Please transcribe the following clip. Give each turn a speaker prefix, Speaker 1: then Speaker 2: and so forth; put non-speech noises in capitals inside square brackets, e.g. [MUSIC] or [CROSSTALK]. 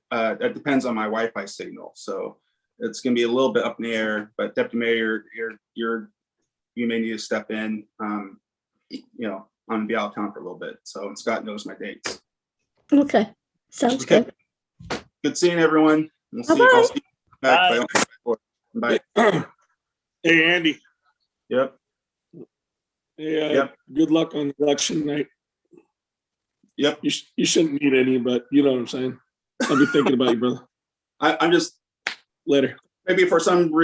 Speaker 1: uh, it depends on my Wi-Fi signal, so it's gonna be a little bit up in the air, but Deputy Mayor, you're, you're, you may need to step in, um, you know, I'm gonna be out of town for a little bit, so and Scott knows my dates.
Speaker 2: Okay, sounds
Speaker 1: Okay.
Speaker 2: good.
Speaker 1: Good seeing everyone. We'll see you- I'll see you back by- Bye.
Speaker 3: [CLEARS THROAT] Hey, Andy.
Speaker 1: Yep,
Speaker 3: Yeah,
Speaker 1: Yep.
Speaker 3: good luck on election night.
Speaker 1: yep.
Speaker 3: You, sh- you shouldn't need any, but you know what I'm saying? I'll be thinking about you, brother.
Speaker 1: I, I'm just,
Speaker 3: Later.
Speaker 1: maybe for some reason